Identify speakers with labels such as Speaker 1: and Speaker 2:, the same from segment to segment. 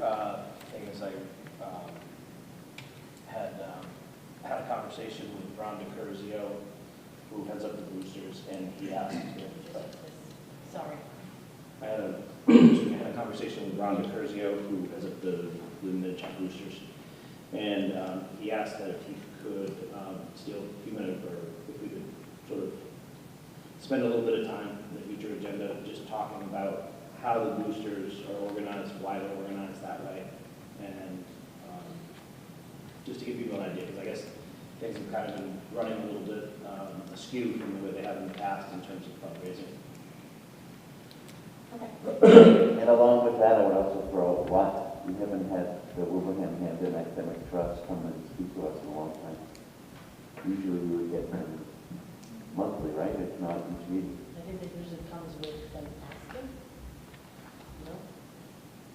Speaker 1: uh, um, conversation with Ron DiCurzio, who heads up the boosters, and he asked if, uh,
Speaker 2: Sorry.
Speaker 1: I had a, we had a conversation with Ron DiCurzio, who heads up the, the Mid-Atlantic Boosters. And, um, he asked that if he could, um, steal a few minutes, or if we could sort of spend a little bit of time in the future agenda, just talking about how the boosters are organized, why they're organized that way, and, um, just to give people an idea, because I guess things have kind of been running a little bit, um, askew from the way they have in the past in terms of fundraising.
Speaker 2: Okay.
Speaker 3: And along with that, I would also throw, what, we haven't had the Wilbraham Hampton Academic Trust come and speak to us in a long time. Usually we would get them monthly, right, if not each meeting.
Speaker 2: I think that usually comes with them asking. No?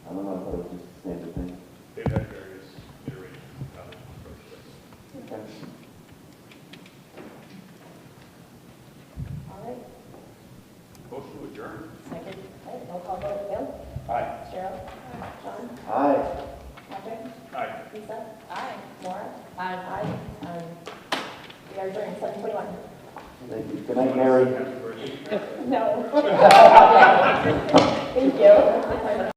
Speaker 3: I don't know, I thought it was just the standard thing.
Speaker 4: They've had various iterations of how to approach this.
Speaker 3: Okay.
Speaker 2: All right,
Speaker 4: Motion to adjourn.
Speaker 2: second. All right, roll call vote. Bill?
Speaker 1: Aye.
Speaker 2: Cheryl? John?
Speaker 3: Aye.
Speaker 2: Patrick?
Speaker 4: Aye.
Speaker 2: Lisa? Aye. Maura? Aye. Aye. Um, We are adjourned seven forty-one.
Speaker 3: Thank you. Good night, Harry.
Speaker 4: Happy birthday.
Speaker 2: No. Thank you.